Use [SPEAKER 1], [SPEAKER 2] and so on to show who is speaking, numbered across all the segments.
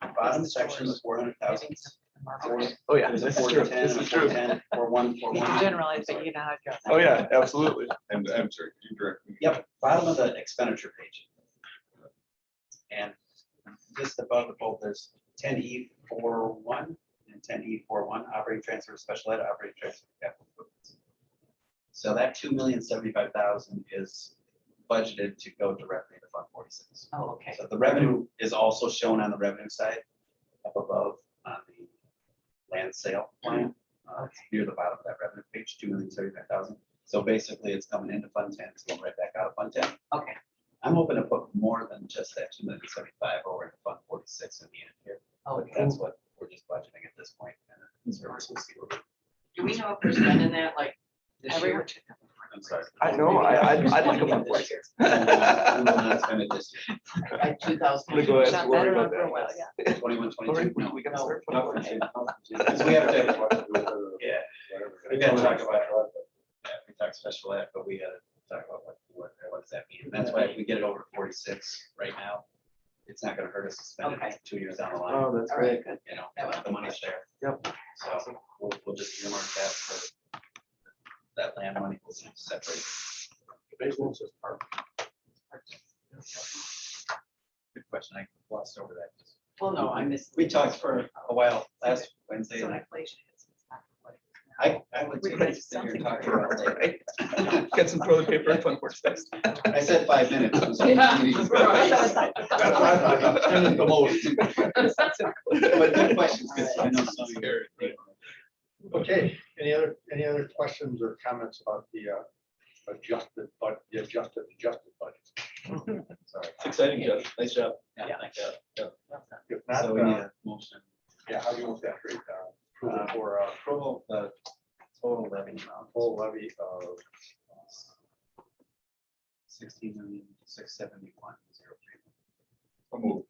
[SPEAKER 1] bottom section is four hundred thousand.
[SPEAKER 2] Oh, yeah.
[SPEAKER 1] There's
[SPEAKER 2] This
[SPEAKER 1] a
[SPEAKER 2] is
[SPEAKER 1] four
[SPEAKER 2] true.
[SPEAKER 1] to ten,
[SPEAKER 2] This
[SPEAKER 1] a
[SPEAKER 2] is
[SPEAKER 1] four
[SPEAKER 2] true.
[SPEAKER 1] to ten, four one, four
[SPEAKER 3] You
[SPEAKER 1] one.
[SPEAKER 3] can generalize, but you know how it goes.
[SPEAKER 2] Oh, yeah, absolutely.
[SPEAKER 4] And I'm sorry, could you direct me?
[SPEAKER 1] Yep, bottom of the expenditure page. And just above the both, there's ten E four one and ten E four one, operating transfer, special ed, operating transfer. capital improvements. So that two million seventy-five thousand is budgeted to go directly to Fund Forty-Six.
[SPEAKER 3] Oh, okay.
[SPEAKER 1] So the revenue is also shown on the revenue side up above on the land sale plan. Uh, it's Near the bottom of that revenue page, two million thirty-five thousand. So basically, it's coming into Fund Ten, it's going right back out of Fund Ten.
[SPEAKER 3] Okay.
[SPEAKER 1] I'm hoping to put more than just that two million seventy-five over into Fund Forty-six in the end here.
[SPEAKER 3] Oh,
[SPEAKER 1] But that's what we're just budgeting at this point. and then service will see what we-
[SPEAKER 5] Do we know if we're spending that like this
[SPEAKER 3] Every-
[SPEAKER 5] year?
[SPEAKER 1] I'm sorry.
[SPEAKER 2] I know, I, I'd, I'd like a
[SPEAKER 5] Spending
[SPEAKER 2] fun
[SPEAKER 5] it this
[SPEAKER 2] place.
[SPEAKER 5] year.
[SPEAKER 1] We will not- we will not spend it this year.
[SPEAKER 5] Like two
[SPEAKER 2] I'm gonna
[SPEAKER 5] thousand.
[SPEAKER 2] go ahead
[SPEAKER 3] Not
[SPEAKER 2] and worry
[SPEAKER 3] better
[SPEAKER 2] about
[SPEAKER 3] for a while,
[SPEAKER 2] that.
[SPEAKER 3] yeah.
[SPEAKER 1] Twenty-one,
[SPEAKER 2] Lori,
[SPEAKER 1] twenty-two,
[SPEAKER 2] we-
[SPEAKER 1] no.
[SPEAKER 2] we gotta
[SPEAKER 5] No.
[SPEAKER 2] start putting-
[SPEAKER 4] No,
[SPEAKER 1] Because we have
[SPEAKER 4] to.
[SPEAKER 1] Yeah, we gotta talk about, yeah, we talked special ed, but we gotta talk about what, what, what does that mean? And that's why if we get it over forty-six right now, it's not gonna hurt us to spend
[SPEAKER 5] Okay.
[SPEAKER 1] it two years down the line,
[SPEAKER 2] Oh, that's
[SPEAKER 5] All
[SPEAKER 2] right.
[SPEAKER 5] right, good.
[SPEAKER 1] you know,
[SPEAKER 5] That was my
[SPEAKER 1] the money's there.
[SPEAKER 2] Yep.
[SPEAKER 1] So we'll, we'll just earmark that for that land money will be separate. Basement's just part. Good question, I glossed over that.
[SPEAKER 5] Well, no, I missed.
[SPEAKER 1] We talked for a while last Wednesday,
[SPEAKER 3] So
[SPEAKER 1] and I
[SPEAKER 3] inflation is. it's not what it is now.
[SPEAKER 1] I, I would
[SPEAKER 3] We
[SPEAKER 1] take
[SPEAKER 3] could've
[SPEAKER 1] this that you're
[SPEAKER 3] something
[SPEAKER 1] talking
[SPEAKER 3] for
[SPEAKER 1] about later.
[SPEAKER 2] Get some toilet paper and fun horse fest.
[SPEAKER 1] I said five minutes. it was only
[SPEAKER 5] Yeah.
[SPEAKER 1] two minutes.
[SPEAKER 5] Right.
[SPEAKER 2] That's what I thought. Ten at the most.
[SPEAKER 1] But good questions, because I know some.
[SPEAKER 6] Okay, any other, any other questions or comments about the uh, adjusted, but the adjusted, adjusted budget?
[SPEAKER 4] It's exciting, Jeff. Nice job.
[SPEAKER 1] Yeah, like that.
[SPEAKER 6] If
[SPEAKER 1] So we need
[SPEAKER 6] not, uh,
[SPEAKER 1] a motion.
[SPEAKER 6] yeah, how do you want that rate down? For uh,
[SPEAKER 1] Approval of the total levy amount,
[SPEAKER 6] full levy of
[SPEAKER 1] sixteen million, six seventy-one, zero three.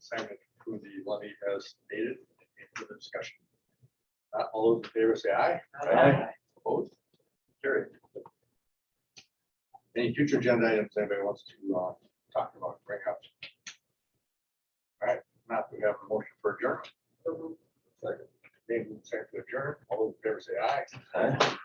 [SPEAKER 6] assignment through the levy as stated in the discussion. Uh, All those in favor say aye.
[SPEAKER 5] Aye.
[SPEAKER 6] Opposed? Carried. Any future agenda items anybody wants to uh, talk about, bring up? All right, now we have a motion for adjournment. Second, Dave, second to adjourn. All those in favor say aye.